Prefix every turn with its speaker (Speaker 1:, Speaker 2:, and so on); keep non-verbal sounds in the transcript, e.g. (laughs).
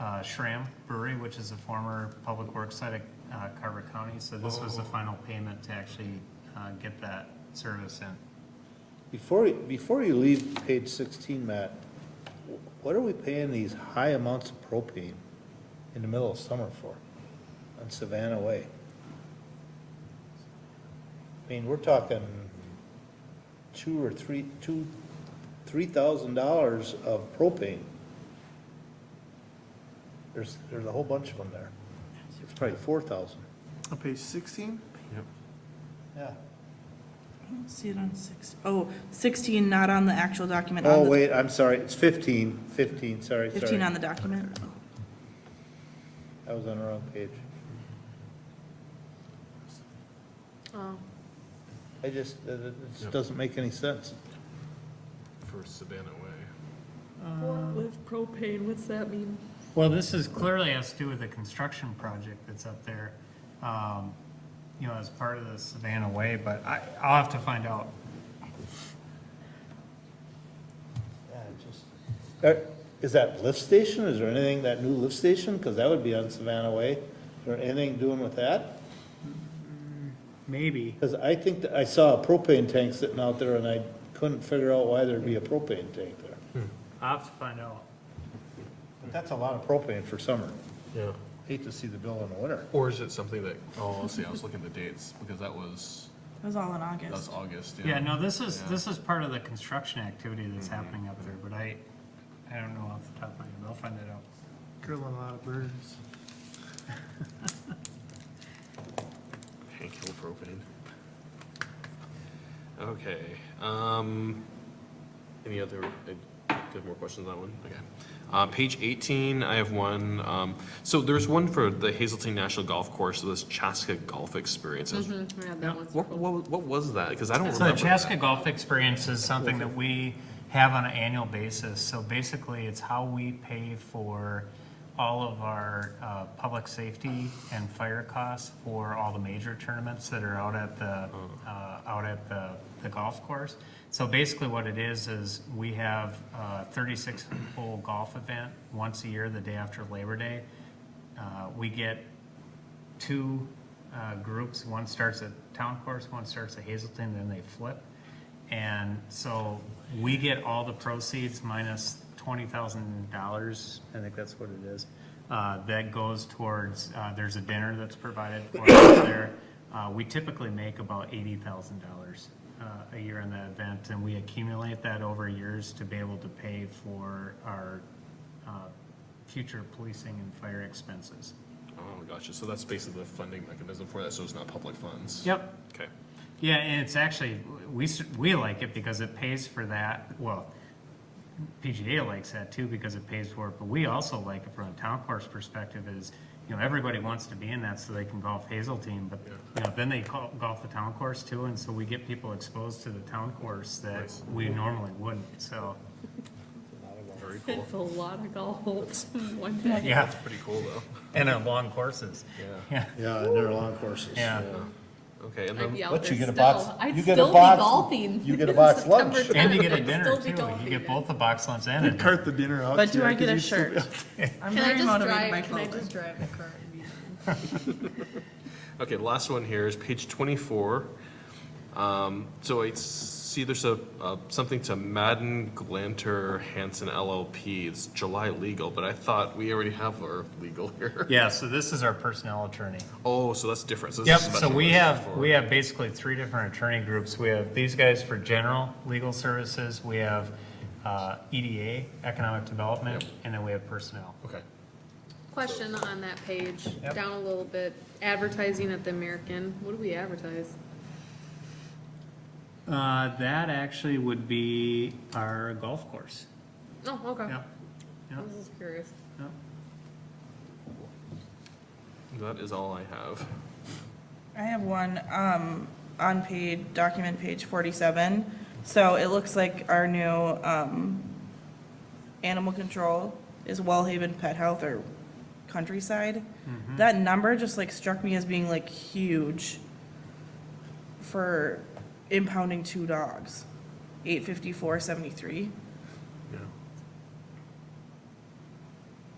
Speaker 1: uh, Shram Brewery, which is a former public works site at uh, Carver County. So this was the final payment to actually uh, get that service in.
Speaker 2: Before, you- before you leave page sixteen, Matt, wh- what are we paying these high amounts of propane in the middle of summer for on Savannah Way? I mean, we're talking two or three, two, three thousand dollars of propane. There's, there's a whole bunch of them there. It's probably four thousand.
Speaker 3: On page sixteen?
Speaker 2: Yeah.
Speaker 4: I don't see it on six, oh, 16, not on the actual document. on
Speaker 2: Oh,
Speaker 4: the-
Speaker 2: wait, I'm sorry, it's fifteen. Fifteen. sorry, sorry.
Speaker 4: 15 on the document.
Speaker 2: I was on the wrong page.
Speaker 5: Oh,
Speaker 2: I just, it, it just
Speaker 6: Yep.
Speaker 2: doesn't make any sense.
Speaker 6: for Savannah Way.
Speaker 5: with propane, what's that mean?
Speaker 1: Well, this is clearly has to do with the construction project that's up there, um, you know, as part of the Savannah Way, but I, I'll have to find out.
Speaker 2: Uh, Is that lift station? Is there anything, that new lift station? Because that would be on Savannah Way. Is there anything doing with that?
Speaker 1: Maybe.
Speaker 2: Because I think, that I saw a propane tank sitting out there and I couldn't figure out why there'd be a propane tank there.
Speaker 1: I'll have to find out.
Speaker 2: But That's a lot of propane for summer.
Speaker 6: Yeah.
Speaker 2: Hate to see the bill in the winter.
Speaker 6: Or is it something that, oh, let's see, I was looking at the dates, because that was,
Speaker 4: It was all in
Speaker 6: that was
Speaker 4: August.
Speaker 6: August, yeah.
Speaker 1: Yeah, Mm-hmm. no, this is,
Speaker 6: Yeah.
Speaker 1: this is part of the construction activity that's happening up there, but I, I don't know off the top of my head, I'll find it out.
Speaker 3: Grilling a lot of burgers.
Speaker 6: Hank Hill propane. Okay, um, any other, I have more questions on that one? Okay. Uh, page eighteen, I have one, um, so there's one for the Hazelton National Golf Course, so this Chaska Golf Experience. is-
Speaker 5: Yeah, that one's
Speaker 6: What, what, what was that? Because I don't
Speaker 1: So the
Speaker 6: remember
Speaker 1: Chaska
Speaker 6: that.
Speaker 1: Golf Experience is something that we have on an annual basis. So basically, it's how we pay for all of our uh, public safety and fire costs for all the major tournaments that are out at the, uh, out at the the golf course. So basically, what it is, is we have a 36-hole golf event once a year, the day after Labor Day. Uh, We get two uh, groups. One starts at Town Course, one starts at Hazelton, then they flip. And so we get all the proceeds minus twenty thousand dollars, I think that's what it is. Uh, That goes towards, uh, there's a dinner that's provided for us there. Uh, We typically make about eighty thousand dollars uh, a year in that event, and we accumulate that over years to be able to pay for our uh, future policing and fire expenses.
Speaker 6: Oh, gotcha, so that's basically the funding mechanism for that, so it's not public funds?
Speaker 1: Yep.
Speaker 6: Okay.
Speaker 1: Yeah, and it's actually, we, s- we like it because it pays for that, well, PGA likes that too because it pays for it, but we also like it from a town course perspective is, you know, everybody wants to be in that so they can golf Hazeltine, but, you know, then they call- golf the town course too, and so we get people exposed to the town course that
Speaker 6: Nice.
Speaker 1: we normally wouldn't, so,
Speaker 6: Very cool.
Speaker 5: It's a lot of golf in one day.
Speaker 1: yeah,
Speaker 6: Pretty cool though.
Speaker 1: and on long courses.
Speaker 6: Yeah.
Speaker 1: Yeah,
Speaker 2: Yeah, and they're long courses.
Speaker 1: yeah.
Speaker 6: Okay, and
Speaker 5: I'd
Speaker 6: then
Speaker 5: be out
Speaker 2: But you
Speaker 5: there
Speaker 2: get a
Speaker 5: still.
Speaker 2: box-
Speaker 5: I'd
Speaker 2: you get a
Speaker 5: still be
Speaker 2: box-
Speaker 5: golfing.
Speaker 2: you get a box
Speaker 5: September
Speaker 2: lunch.
Speaker 5: 10th,
Speaker 1: And
Speaker 5: (laughs)
Speaker 1: you get a
Speaker 5: I'd
Speaker 1: dinner
Speaker 5: still be
Speaker 1: too, you
Speaker 5: golfing.
Speaker 1: get both the box lunch and a dinner.
Speaker 3: Cart the dinner out.
Speaker 4: But do
Speaker 3: yeah,
Speaker 4: I get
Speaker 3: 'cause
Speaker 4: a
Speaker 3: you still
Speaker 4: shirt? I'm
Speaker 5: Can I
Speaker 4: very
Speaker 5: just
Speaker 4: motivated by
Speaker 5: drive, can I
Speaker 4: clothing.
Speaker 5: just drive the car? and be-
Speaker 6: Okay, the last one here is page twenty-four. Um, so I see there's a, uh, something to Madden Glanter Hanson LLP. It's July legal, but I thought we already have our legal here. (laughs)
Speaker 1: Yeah, so this is our personnel attorney.
Speaker 6: Oh, so that's different. So this
Speaker 1: Yep,
Speaker 6: is
Speaker 1: so
Speaker 6: special
Speaker 1: we
Speaker 6: version
Speaker 1: have,
Speaker 6: for-
Speaker 1: we have basically three different attorney groups. We have these guys for general legal services, we have uh, EDA, economic development,
Speaker 6: Yep.
Speaker 1: and then we have personnel.
Speaker 6: Okay.
Speaker 5: Question on that page,
Speaker 1: Yep.
Speaker 5: down a little bit, advertising at the American, what do we advertise?
Speaker 1: Uh, That actually would be our golf course.
Speaker 5: Oh, okay,
Speaker 1: Yeah,
Speaker 5: I was just curious.
Speaker 1: yeah.
Speaker 6: That is all I have.
Speaker 4: I have one, um, on page, document page forty-seven. So it looks like our new, um, animal control is Wellhaven Pet Health or Countryside. That number just like struck me as being like huge for impounding two dogs. Eight fifty-four seventy-three.